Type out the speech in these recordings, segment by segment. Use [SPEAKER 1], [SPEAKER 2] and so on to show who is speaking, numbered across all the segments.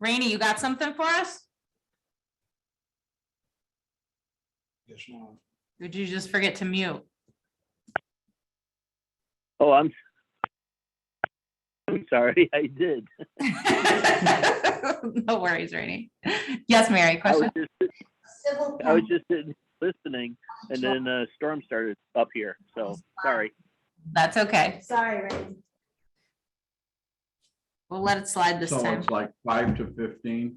[SPEAKER 1] Rainey, you got something for us?
[SPEAKER 2] Yes, no.
[SPEAKER 1] Did you just forget to mute?
[SPEAKER 3] Oh, I'm, I'm sorry, I did.
[SPEAKER 1] No worries, Rainey. Yes, Mary,
[SPEAKER 3] I was
[SPEAKER 1] question?
[SPEAKER 3] just,
[SPEAKER 4] Civil
[SPEAKER 3] I was just sitting- listening and then a storm started up here, so, sorry.
[SPEAKER 1] That's okay.
[SPEAKER 4] Sorry, Randy.
[SPEAKER 1] We'll let it slide this
[SPEAKER 2] So
[SPEAKER 1] time.
[SPEAKER 2] it's like five to fifteen,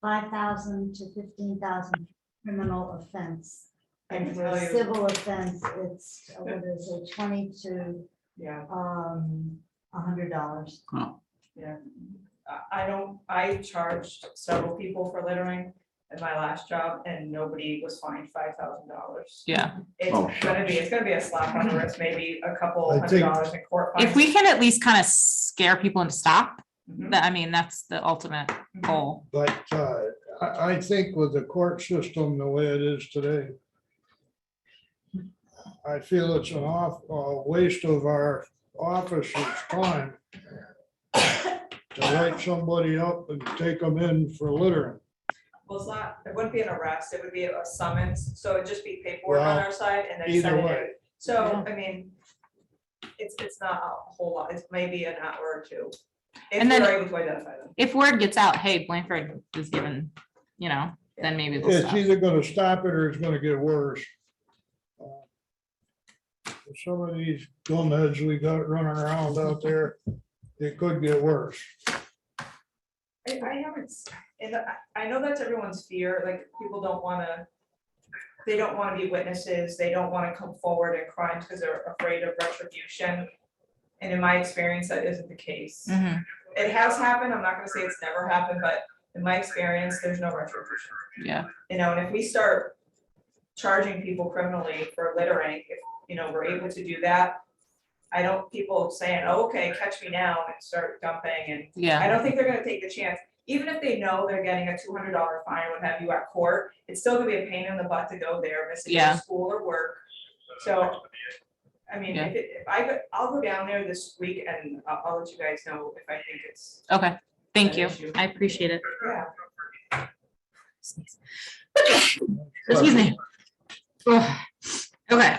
[SPEAKER 4] Five thousand to fifteen thousand criminal offense.
[SPEAKER 5] I
[SPEAKER 4] And
[SPEAKER 5] can
[SPEAKER 4] for a
[SPEAKER 5] tell you.
[SPEAKER 4] civil offense, it's, uh, what is it, twenty to,
[SPEAKER 5] Yeah,
[SPEAKER 4] um, a hundred dollars.
[SPEAKER 2] huh,
[SPEAKER 5] yeah. I, I don't, I charged several people for littering at my last job and nobody was fined five thousand dollars.
[SPEAKER 1] Yeah,
[SPEAKER 2] Oh,
[SPEAKER 5] It's gonna be, it's gonna be a slap on the wrist, maybe a couple
[SPEAKER 6] I
[SPEAKER 5] hundred
[SPEAKER 6] think-
[SPEAKER 5] dollars in court.
[SPEAKER 1] if we
[SPEAKER 5] fines.
[SPEAKER 1] can at least kind of scare people into stop,
[SPEAKER 5] Mhm,
[SPEAKER 1] that, I mean, that's the ultimate
[SPEAKER 5] mhm.
[SPEAKER 1] goal.
[SPEAKER 6] But uh, I, I think with the court system the way it is today, I feel it's an off, a waste of our officers' time to write somebody up and take them in for littering.
[SPEAKER 5] Well, it's not, it wouldn't be an arrest, it would be a summons, so it'd just be paperwork on
[SPEAKER 6] Well,
[SPEAKER 5] our side and then
[SPEAKER 6] either
[SPEAKER 5] send it.
[SPEAKER 6] way.
[SPEAKER 5] out. So, I mean, it's, it's not a whole lot, it's maybe an hour or two. If
[SPEAKER 1] And then-
[SPEAKER 5] we're able to identify them.
[SPEAKER 1] If word gets out, hey, Blanford is given, you know, then maybe we'll
[SPEAKER 6] It's
[SPEAKER 1] stop.
[SPEAKER 6] either gonna stop it or it's gonna get worse. Uh, Some of these gumheads we got running around out there, it could get worse.
[SPEAKER 5] I, I haven't, s- and I, I know that's everyone's fear, like, people don't wanna, they don't wanna be witnesses, they don't wanna come forward in crimes because they're afraid of retribution. And in my experience, that isn't the case.
[SPEAKER 1] Mhm,
[SPEAKER 5] It has happened, I'm not gonna say it's never happened, but in my experience, there's no retribution.
[SPEAKER 1] Yeah,
[SPEAKER 5] You know, and if we start charging people criminally for littering, if, you know, we're able to do that, I don't, people saying, "Oh, okay, catch me now, and start dumping and I
[SPEAKER 1] yeah,
[SPEAKER 5] don't think they're gonna take the chance, even if they know they're getting a two hundred dollar fine, what have you at court, it's still gonna be a pain in the butt to go there, missing
[SPEAKER 1] Yeah.
[SPEAKER 5] your school or work. So, I mean,
[SPEAKER 1] Yeah.
[SPEAKER 5] if it, if I, go, I'll go down there this week and I'll, I'll let you guys know if I think it's,
[SPEAKER 1] okay. Thank you.
[SPEAKER 5] An issue.
[SPEAKER 1] I appreciate it.
[SPEAKER 5] yeah.
[SPEAKER 1] Excuse me. Ugh. Okay,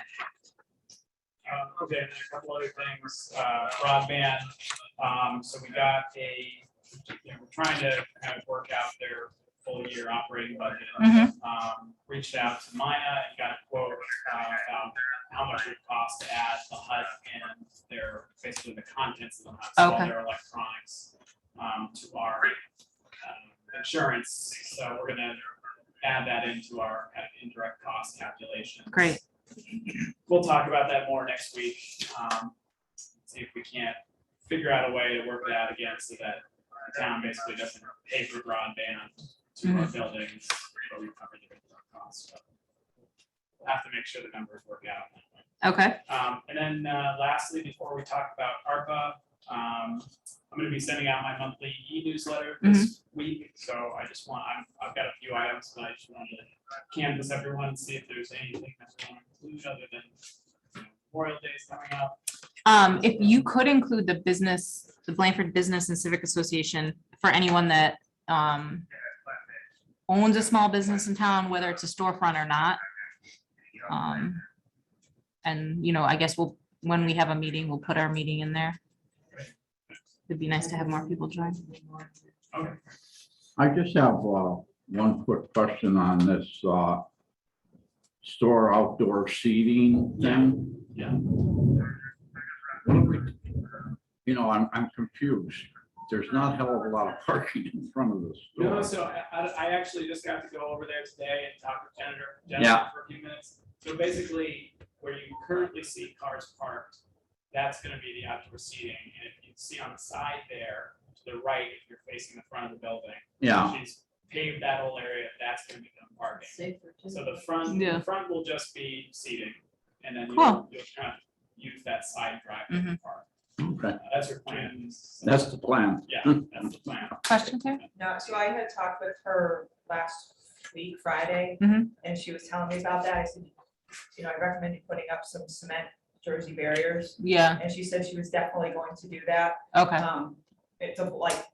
[SPEAKER 7] Um, Okay, and then a couple other things, uh, broadband, um, so we got a, you know, we're trying to kind of work out their full year operating budget.
[SPEAKER 1] Mhm.
[SPEAKER 7] Um, reached out to Maya and got a quote, uh, about how much it would cost to add the hut and their, basically the contents of the hut, so all
[SPEAKER 1] Okay.
[SPEAKER 7] their electronics, um, to our um, insurance, so we're gonna add that into our kind of indirect cost calculations.
[SPEAKER 1] Great.
[SPEAKER 7] We'll talk about that more next week. um, See if we can't figure out a way to work it out again so that the town basically doesn't pay for broadband to our buildings, but we cover the indirect costs. So we'll Have to make sure the numbers work out. that way.
[SPEAKER 1] okay,
[SPEAKER 7] Um, and then uh, lastly, before we talk about ARPA, um, I'm gonna be sending out my monthly e-newsletter this week. So I just want, I've, I've got a few items, but I just wanted to canvas everyone, and see if there's anything that we want to include other than you know, Memorial Day is coming up.
[SPEAKER 1] um, if you could include the business, the Blanford Business and Civic Association for anyone that, um, owns a small business in town, whether it's a storefront or not. Um, and, you know, I guess we'll, when we have a meeting, we'll put our meeting in there. It'd be nice to have more people join.
[SPEAKER 7] Okay,
[SPEAKER 2] I just have uh, one quick question on this uh, store outdoor seating thing.
[SPEAKER 7] Yeah,
[SPEAKER 2] You know, I'm, I'm confused. There's not a hell of a lot of parking in front of
[SPEAKER 7] no,
[SPEAKER 2] the store.
[SPEAKER 7] so I, I I actually just got to go over there today and talk with Jennifer,
[SPEAKER 2] Yeah.
[SPEAKER 7] Jennifer for a few minutes. So basically, where you currently see cars parked, that's gonna be the outdoor seating, and if you see on the side there, to the right, if you're facing the front of the building.
[SPEAKER 2] Yeah,
[SPEAKER 7] She's paved that whole area, that's gonna become parking. So the front,
[SPEAKER 1] Yeah.
[SPEAKER 7] the front will just be seating, and then
[SPEAKER 1] Cool.
[SPEAKER 7] you'll, you'll kind of use that side drive to park.
[SPEAKER 2] okay.
[SPEAKER 7] Uh, That's your plan. so-
[SPEAKER 2] Mm-hmm. That's the plan.
[SPEAKER 7] Yeah, that's the plan.
[SPEAKER 1] Question, Karen?
[SPEAKER 5] No, so I had talked with her last week, Friday,
[SPEAKER 1] Mhm.
[SPEAKER 5] and she was telling me about that, I said, you know, I recommended putting up some cement Jersey barriers,
[SPEAKER 1] Yeah,
[SPEAKER 5] and she said she was definitely going to do that.
[SPEAKER 1] okay.
[SPEAKER 5] Um, it's a like